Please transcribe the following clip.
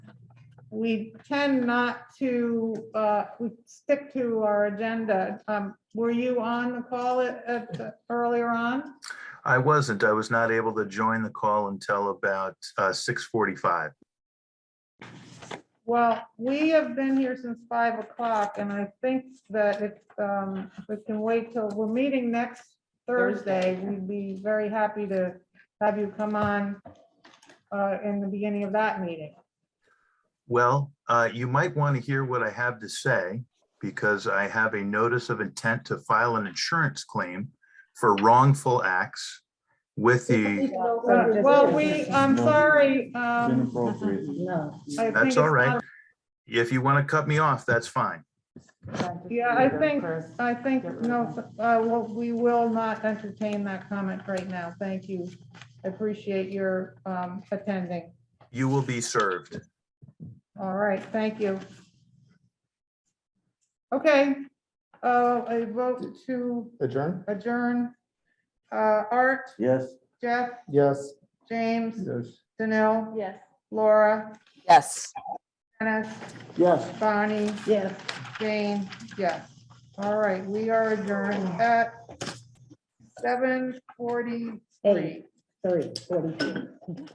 we tend not to, uh, we stick to our agenda. Um, were you on the call at, at, the- earlier on? I wasn't. I was not able to join the call until about uh, 6:45. Well, we have been here since five o'clock and I think that if, um, if we can wait till, we're meeting next Thursday. We'd be very happy to have you come on, uh, in the beginning of that meeting. Well, uh, you might want to hear what I have to say because I have a notice of intent to file an insurance claim for wrongful acts with the, Uh, Well, we, I'm sorry, um, Inappropriate. No. I think. that's it's all not right. If you want to cut me off, that's fine. Yeah, I think, I think, no, uh, well, we will not entertain that comment right now. Thank you. I Appreciate your, um, attending. You will be served. All right, thank you. Okay, uh, a vote to Adjourn? adjourn. Uh, Art, Yes. Jeff, Yes. James, Yes. Danil, Yes. Laura, Yes. Dennis, Yes. Bonnie, Yes. Jane, yes. All right, we are adjourned at seven forty-three. Eight, three, forty-two.